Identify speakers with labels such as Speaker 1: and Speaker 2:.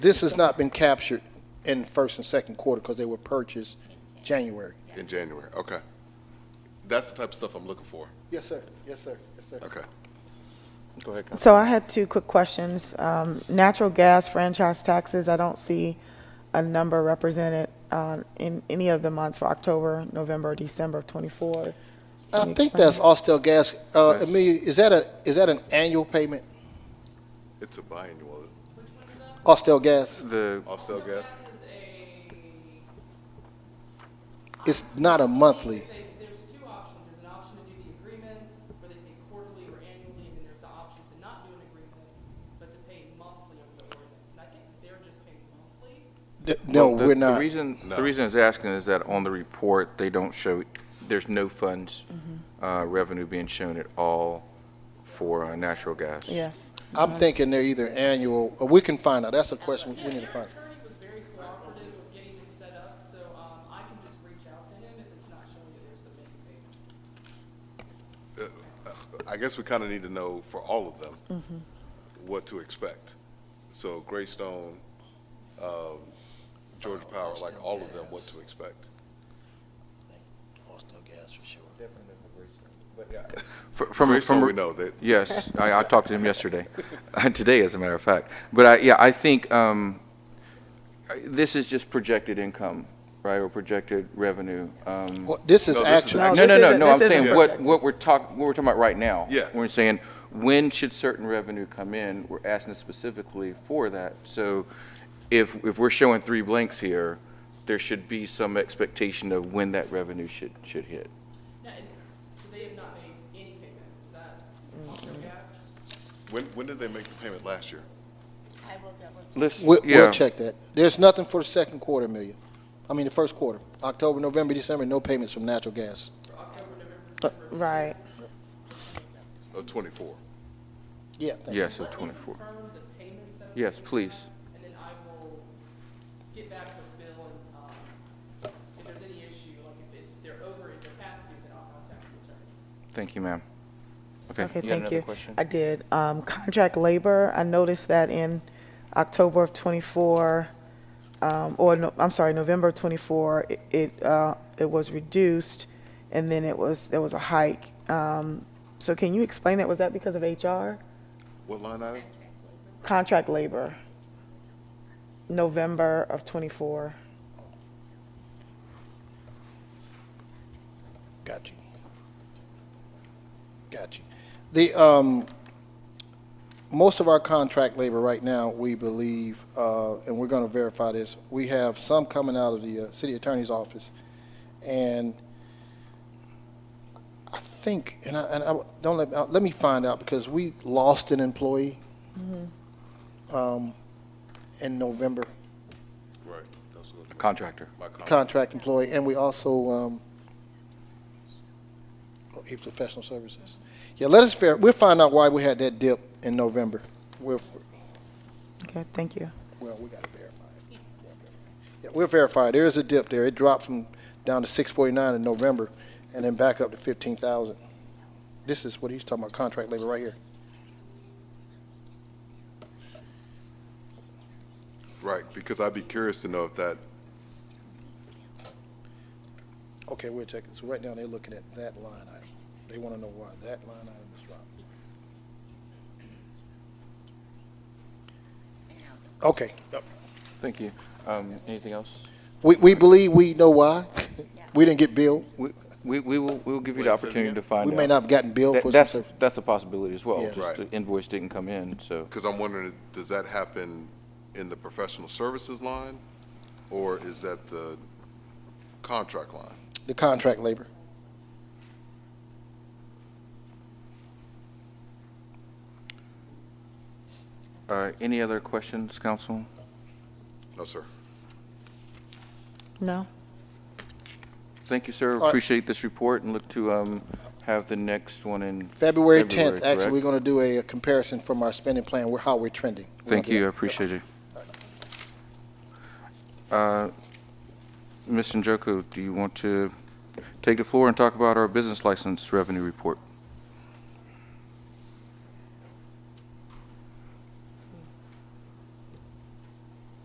Speaker 1: This has not been captured in first and second quarter because they were purchased January.
Speaker 2: In January, okay. That's the type of stuff I'm looking for.
Speaker 1: Yes, sir. Yes, sir. Yes, sir.
Speaker 2: Okay. Go ahead,
Speaker 3: So I had two quick questions. Um, Natural gas franchise taxes, I don't see a number represented uh, in any of the months for October, November, December of '24.
Speaker 1: I think that's Austell Gas. Uh, Amelia, is that a, is that an annual payment,
Speaker 2: It's a biannual.
Speaker 1: Austell Gas?
Speaker 4: The,
Speaker 2: Austell Gas?
Speaker 1: It's not a monthly.
Speaker 5: There's, there's two options. There's an option to do the agreement, where they pay quarterly or annually, and then there's the option to not do an agreement, but to pay monthly under the ordinance. And I think they're just paying monthly.
Speaker 1: Th- No,
Speaker 4: well, the-
Speaker 1: we're not.
Speaker 4: The reason,
Speaker 2: No.
Speaker 4: the reason I was asking is that on the report, they don't show, there's no funds,
Speaker 1: Mm-hmm.
Speaker 4: uh, revenue being shown at all for uh, natural gas.
Speaker 3: Yes.
Speaker 1: I'm thinking they're either annual, or we can find out. That's a question we need to find. out.
Speaker 5: Attorney was very cooperative with getting it set up, so, um, I can just reach out to him if it's not showing that there's submitting payments.
Speaker 2: I guess we kind of need to know for all of them
Speaker 4: Mm-hmm.
Speaker 2: what to expect. So Greystone, um, Georgia Power, like all of them, what to expect.
Speaker 1: Austell Gas for sure.
Speaker 4: Fr- From,
Speaker 2: Greystone,
Speaker 4: from,
Speaker 2: we know that,
Speaker 4: Yes, I, I talked to him yesterday, today, as a matter of fact. But I, yeah, I think um, I- this is just projected income, right, or projected revenue. Um,
Speaker 1: Well, this is
Speaker 2: No, this is
Speaker 1: actually.
Speaker 3: No,
Speaker 4: no, no,
Speaker 3: Oh, this
Speaker 4: no,
Speaker 3: isn't-
Speaker 4: no. I'm
Speaker 3: this isn't
Speaker 4: saying what,
Speaker 3: projected.
Speaker 4: what we're talking, what we're talking about right now.
Speaker 2: Yeah.
Speaker 4: We're saying when should certain revenue come in? We're asking specifically for that. So if if we're showing three blanks here, there should be some expectation of when that revenue should should hit.
Speaker 5: Now, and s- so they have not made any payments, is that? Gas?
Speaker 2: when, when did they make the payment last year?
Speaker 6: I will double check.
Speaker 4: Let's
Speaker 1: We'll,
Speaker 4: yeah.
Speaker 1: we'll check that. There's nothing for the second quarter, Amelia. I mean, the first quarter, October, November, December, no payments from natural gas.
Speaker 4: Uh,
Speaker 3: Right.
Speaker 2: Of twenty-four?
Speaker 1: Yeah, thank you.
Speaker 4: Yes, of 24.
Speaker 5: Confirm the payments that.
Speaker 4: Yes, please.
Speaker 5: and then I will get back with Bill and, um, if there's any issue, like if, if they're over in capacity, then I'll contact the attorney.
Speaker 4: Thank you, ma'am. Okay,
Speaker 3: Okay,
Speaker 4: you got
Speaker 3: thank
Speaker 4: another
Speaker 3: you.
Speaker 4: question?
Speaker 3: I did. Um, Contract labor, I noticed that in October of '24, um, or, no- I'm sorry, November of '24, it, uh, it was reduced, and then it was, there was a hike. Um, So can you explain that? Was that because of HR?
Speaker 2: What line item?
Speaker 3: Contract labor, November of '24.
Speaker 1: Got you. Got you. The, um, most of our contract labor right now, we believe, uh, and we're gonna verify this, we have some coming out of the, uh, city attorney's office. And I think, and I, and I, don't let, uh, let me find out, because we lost an employee, um, in November,
Speaker 2: Right. that's what-
Speaker 4: Contractor.
Speaker 2: My con-
Speaker 1: contract employee, and we also, um, oh, he's professional services. Yeah, let us, ver- we'll find out why we had that dip in November. We'll,
Speaker 3: Okay, thank you.
Speaker 1: well, we gotta verify it. Yeah, we'll verify. There is a dip there. It dropped from, down to six forty-nine in November, and then back up to fifteen thousand. This is what he's talking about, contract labor right here.
Speaker 2: Right, because I'd be curious to know if that,
Speaker 1: Okay, we'll check it. So right now, they're looking at that line item. They wanna know why that line item is dropped. Okay,
Speaker 4: Thank you. Um, Anything else?
Speaker 1: We, we believe we know why. We didn't get billed.
Speaker 4: We, we we will, we will give you the
Speaker 2: Wait, say it
Speaker 4: opportunity
Speaker 2: again?
Speaker 4: to find
Speaker 1: We
Speaker 4: out.
Speaker 1: may not have gotten billed
Speaker 4: That-
Speaker 1: for some
Speaker 4: That's,
Speaker 1: service.
Speaker 4: that's a possibility as well,
Speaker 1: Yeah.
Speaker 4: just
Speaker 2: Right.
Speaker 4: the invoice didn't come in, so.
Speaker 2: because I'm wondering, does that happen in the professional services line? Or is that the contract line?
Speaker 1: The contract labor.
Speaker 4: Uh, Any other questions, council?
Speaker 2: No, sir.
Speaker 3: No?
Speaker 4: Thank you, sir,
Speaker 1: right.
Speaker 4: appreciate this report and look to um, have the next one in.
Speaker 1: February tenth,
Speaker 4: correct?
Speaker 1: actually, we're gonna do a comparison from our spending plan, where, how we're trending. We're gonna
Speaker 4: Thank
Speaker 1: do
Speaker 4: you, I
Speaker 1: that.
Speaker 4: appreciate you. Uh, Ms. Njoku, do you want to take the floor and talk about our business license revenue report?